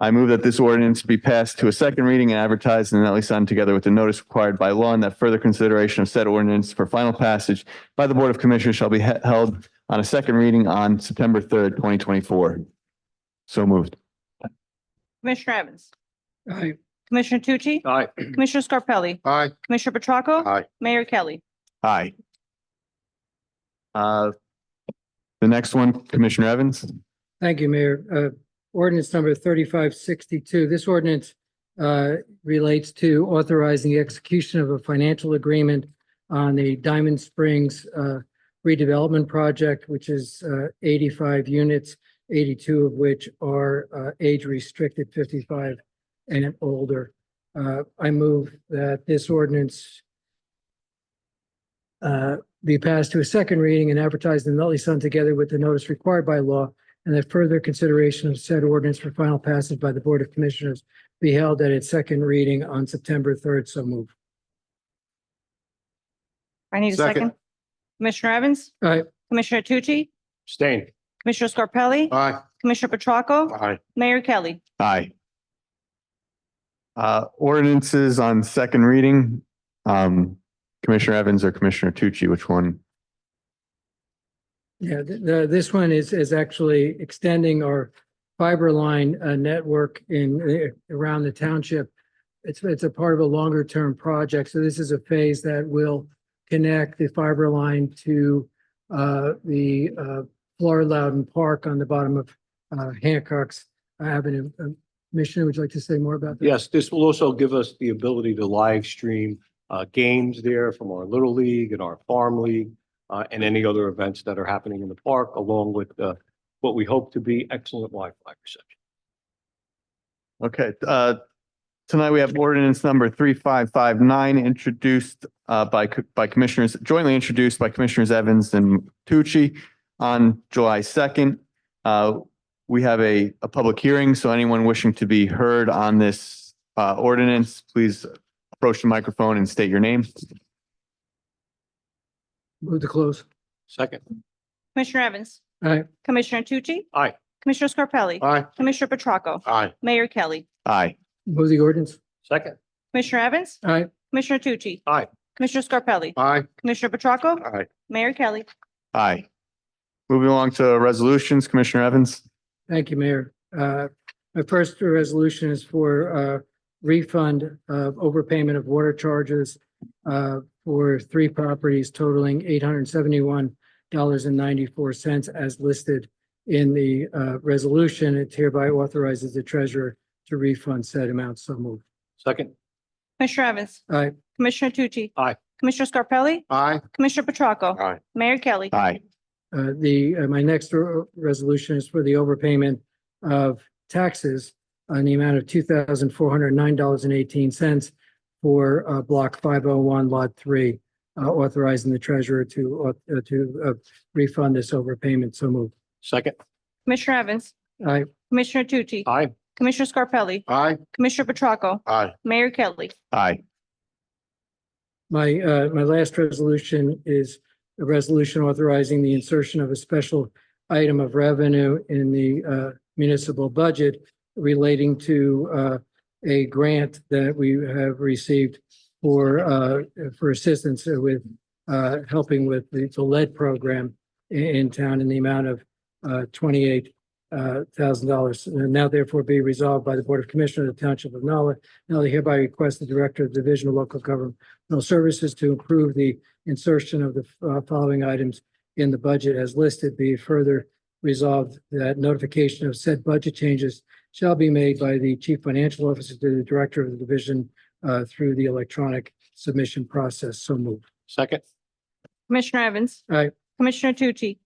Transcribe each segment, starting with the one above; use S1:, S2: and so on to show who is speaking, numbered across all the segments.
S1: I move that this ordinance be passed to a second reading and advertised in the Nutley Sun together with the notice required by law and that further consideration of said ordinance for final passage by the Board of Commissioners shall be he- held on a second reading on September third, twenty twenty-four. So moved.
S2: Commissioner Evans,
S3: aye,
S2: Commissioner Tucci,
S4: Aye.
S2: Commissioner Scarpelli,
S4: Aye.
S2: Commissioner Petracca.
S4: Aye.
S2: Mayor Kelly.
S1: Aye. Uh, the next one, Commissioner Evans?
S3: thank you, Mayor. Uh, ordinance number thirty-five sixty-two, this ordinance uh, relates to authorizing the execution of a financial agreement on the Diamond Springs uh, redevelopment project, which is uh, eighty-five units, eighty-two of which are uh, age-restricted, fifty-five and older. Uh, I move that this ordinance uh, be passed to a second reading and advertised in the Nutley Sun together with the notice required by law and that further consideration of said ordinance for final passage by the Board of Commissioners be held at its second reading on September third, so move.
S2: I need a
S4: Second.
S2: second. Commissioner Evans,
S3: Aye,
S2: Commissioner Tucci,
S4: Stain.
S2: Commissioner Scarpelli,
S4: Aye.
S2: Commissioner Petracca,
S4: Aye.
S2: Mayor Kelly.
S1: Aye. Uh, ordinances on second reading, um, Commissioner Evans or Commissioner Tucci, which one?
S3: yeah, th- the, this one is, is actually extending our fiber line, uh, network in, uh, around the township. It's, it's a part of a longer-term project, so this is a phase that will connect the fiber line to, uh, the, uh, Florida Loudon Park on the bottom of, uh, Hancock's Avenue. Uh, Commissioner, would you like to say more about that?
S5: Yes, this will also give us the ability to live stream uh, games there from our Little League and our Farm League uh, and any other events that are happening in the park, along with uh, what we hope to be excellent Wi-Fi reception.
S1: Okay, uh, tonight we have ordinance number three, five, five, nine, introduced, uh, by, co- by commissioners, jointly introduced by Commissioners Evans and Tucci on July second. Uh, we have a, a public hearing, so anyone wishing to be heard on this, uh, ordinance, please approach the microphone and state your name.
S3: Move to close.
S5: Second,
S2: Commissioner Evans,
S3: Aye.
S2: Commissioner Tucci.
S5: Aye.
S2: Commissioner Scarpelli,
S4: Aye.
S2: Commissioner Petracca,
S4: Aye.
S2: Mayor Kelly.
S1: Aye.
S3: Move the ordinance.
S5: second,
S2: Commissioner Evans,
S3: Aye.
S2: Commissioner Tucci.
S5: Aye.
S2: Commissioner Scarpelli,
S4: Aye.
S2: Commissioner Petracca,
S4: Aye.
S2: Mayor Kelly.
S1: Aye. Moving along to resolutions, Commissioner Evans.
S3: Thank you, Mayor. Uh, My first resolution is for uh, refund of overpayment of water charges uh, for three properties totaling eight hundred and seventy-one dollars and ninety-four cents as listed in the uh, resolution. It hereby authorizes the treasurer to refund said amount. So moved.
S5: second,
S2: Commissioner Evans,
S3: Aye.
S2: Commissioner Tucci.
S5: Aye.
S2: Commissioner Scarpelli,
S4: Aye.
S2: Commissioner Petracca.
S4: Aye.
S2: Mayor Kelly.
S1: Aye.
S3: Uh, the, uh, my next r- resolution is for the overpayment of taxes on the amount of two thousand four hundred nine dollars and eighteen cents for, uh, block five oh one, lot three, uh, authorizing the treasurer to, au- uh, to, uh, refund this overpayment. So moved.
S5: second,
S2: Commissioner Evans,
S3: Aye.
S2: Commissioner Tucci.
S5: aye,
S2: Commissioner Scarpelli,
S4: Aye.
S2: Commissioner Petracca,
S4: Aye.
S2: Mayor Kelly.
S1: Aye.
S3: My, uh, my last resolution is a resolution authorizing the insertion of a special item of revenue in the, uh, municipal budget relating to, uh, a grant that we have received for, uh, for assistance with, uh, helping with the, the lead program i- in town in the amount of, uh, twenty-eight, uh, dollars. Now therefore be resolved by the Board of Commissioners of the Township of Nutley. Nutley hereby request the Director of Division of Local Government Professional Services to improve the insertion of the uh, following items in the budget as listed be further resolved that notification of said budget changes shall be made by the Chief Financial Officer to the Director of the Division uh, through the electronic submission process. So moved.
S5: second,
S2: Commissioner Evans.
S3: Aye.
S2: Commissioner Tucci,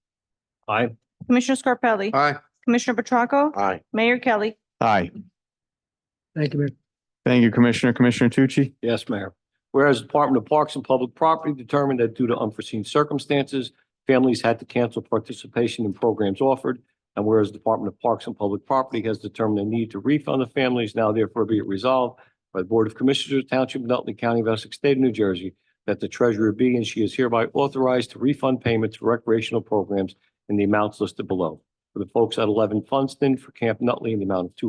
S5: aye,
S2: Commissioner Scarpelli,
S4: Aye.
S2: Commissioner Petracca,
S4: Aye.
S2: Mayor Kelly.
S1: Aye.
S3: Thank you, Mayor.
S1: Thank you, Commissioner. Commissioner Tucci?
S5: yes, Mayor. Whereas the Department of Parks and Public Property determined that due to unforeseen circumstances, families had to cancel participation in programs offered. And whereas the Department of Parks and Public Property has determined the need to refund the families, now therefore be it resolved by the Board of Commissioners of Township of Nutley County of Essex State of New Jersey that the treasurer be and she is hereby authorized to refund payments for recreational programs in the amounts listed below. For the folks at eleven Funston for Camp Nutley in the amount of two